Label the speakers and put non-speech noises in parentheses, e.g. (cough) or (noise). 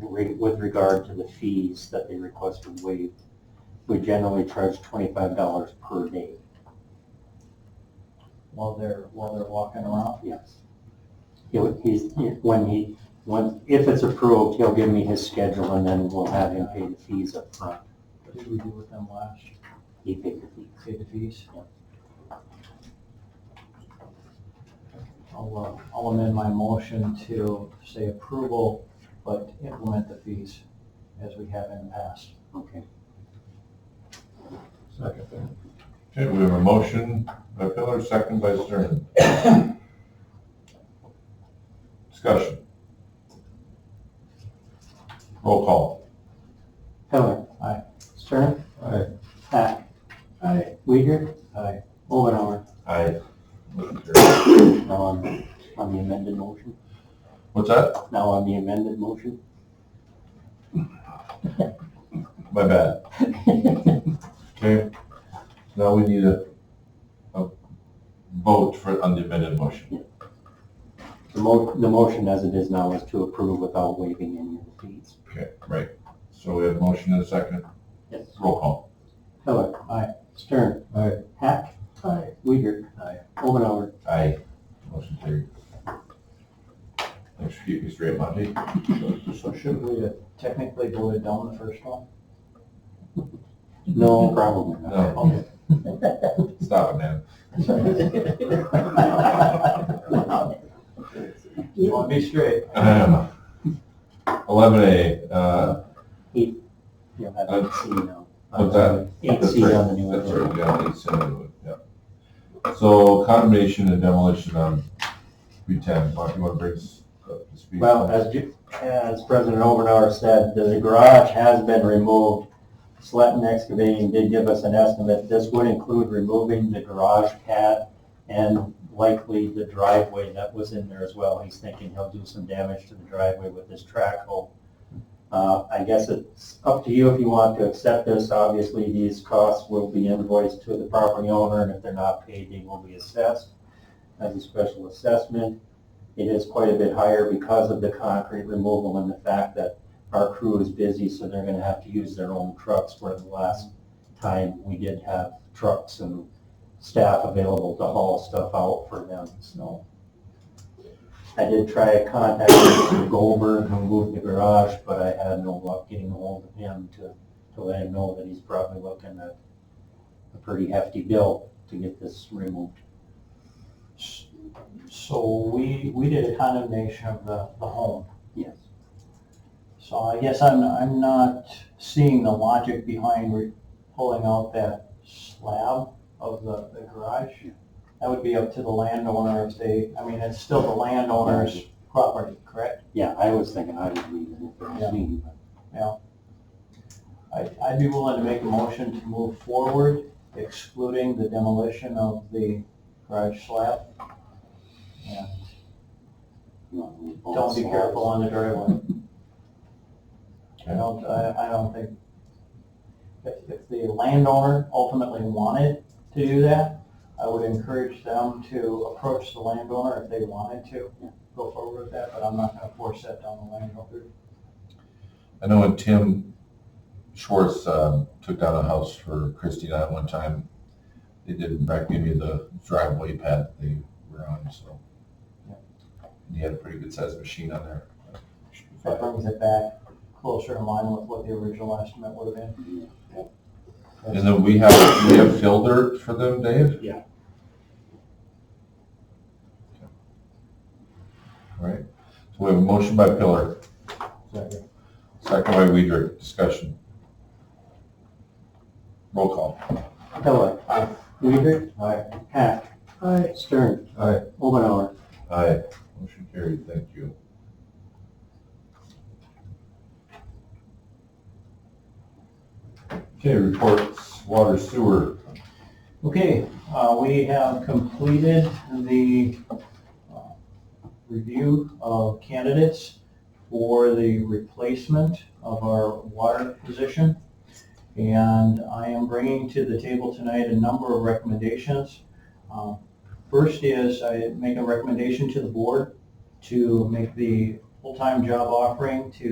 Speaker 1: re- with regard to the fees that they requested waived, we generally charge twenty-five dollars per day.
Speaker 2: while they're, while they're walking around.
Speaker 1: Yes. He'll, he's, when he, when, if it's approved, he'll give me his schedule and then we'll have him pay the fees up front.
Speaker 2: What did we do with them last? year?
Speaker 1: He paid the fees.
Speaker 2: Pay the fees? I'll, uh, I'll amend my motion to say approval, but implement the fees as we have in the past.
Speaker 1: Okay.
Speaker 3: Second there. Okay, we have a motion by Pillar, second by Stern. Discussion. Roll call.
Speaker 1: Heller.
Speaker 2: Aye.
Speaker 1: Stern.
Speaker 3: Aye.
Speaker 1: Hack.
Speaker 2: Aye.
Speaker 1: Weider.
Speaker 2: Aye.
Speaker 1: Omenauer.
Speaker 3: Aye. Motion carries.
Speaker 1: Now on, on the amended motion.
Speaker 3: What's that?
Speaker 1: Now on the amended motion.
Speaker 3: My bad. Okay, now we need a, a vote for, on the amended motion.
Speaker 1: The mo, the motion as it is now is to approve without waiving any of the fees.
Speaker 3: Okay, right. So we have a motion and a second.
Speaker 1: Yes.
Speaker 3: Roll call.
Speaker 1: Heller.
Speaker 2: Aye.
Speaker 1: Stern.
Speaker 3: Aye.
Speaker 1: Hack.
Speaker 2: Aye.
Speaker 1: Weider.
Speaker 2: Aye.
Speaker 1: Omenauer.
Speaker 3: Aye. Motion carried. Thanks for keeping me straight, Monty.
Speaker 2: So should we have technically voted down the first one?
Speaker 1: (laughs) No, probably not.
Speaker 3: No.
Speaker 2: Okay.
Speaker 1: (laughs)
Speaker 3: Stop it, man.
Speaker 2: You want to be straight?
Speaker 3: Um, Eleven A, uh,
Speaker 1: Yeah, I don't see now.
Speaker 3: What's that?
Speaker 1: Eight
Speaker 3: that's
Speaker 1: C
Speaker 3: right,
Speaker 1: on the new
Speaker 3: that's
Speaker 1: agenda.
Speaker 3: right, yeah, it's, uh, yeah. So condemnation and demolition on Route ten, Monty, you want to bring us up to speed?
Speaker 1: Well, as, Ju- as President Omenauer said, the garage has been removed. Sletton Excavating did give us an estimate. This would include removing the garage pad and likely the driveway that was in there as well. He's thinking he'll do some damage to the driveway with his track hoe. Uh, I guess it's up to you if you want to accept this. Obviously, these costs will be invoiced to the property owner, and if they're not paid, they will be assessed as a special assessment. It is quite a bit higher because of the concrete removal and the fact that our crew is busy, so they're gonna have to use their own trucks, where the last time we did have trucks and staff available to haul stuff out for them, so. I did try contacting Mr. Goldberg who moved the garage, but I had no luck getting ahold of him to, to let him know that he's probably looking at a pretty hefty bill to get this removed.
Speaker 2: So we, we did a condemnation of the, the home.
Speaker 1: Yes.
Speaker 2: So I guess I'm, I'm not seeing the logic behind re- pulling out that slab of the, the garage. That would be up to the landowner if they, I mean, it's still the landowner's property, correct?
Speaker 1: Yeah, I was thinking I would leave it if it was me, but
Speaker 2: I, I'd be willing to make a motion to move forward excluding the demolition of the garage slab. And
Speaker 1: you know, we both
Speaker 2: don't be
Speaker 1: saw it.
Speaker 2: careful on the driveway. I don't, I, I don't think, if, if the landowner ultimately wanted to do that, I would encourage them to approach the landowner if they wanted to go forward with that, but I'm not gonna force that down the landowner.
Speaker 3: I know when Tim Schwartz um, took down a house for Christie and I one time, they did in fact give me the driveway pad they were on, so. And he had a pretty good sized machine on there.
Speaker 2: That brings it back closer in line with what the original estimate would have been.
Speaker 3: And then we have, we have fill dirt for them, Dave?
Speaker 1: Yeah.
Speaker 3: All right, so we have a motion by Pillar,
Speaker 2: Second.
Speaker 3: second by Weider, discussion. Roll call.
Speaker 1: Heller. Aye. Weider.
Speaker 2: Aye.
Speaker 1: Hack. Aye. Stern.
Speaker 3: Aye.
Speaker 1: Omenauer.
Speaker 3: Aye. Motion carried, thank you. Okay, reports, water sewer.
Speaker 2: Okay, uh, we have completed the uh, review of candidates for the replacement of our water position. And I am bringing to the table tonight a number of recommendations. Uh, First is I make a recommendation to the board to make the full-time job offering to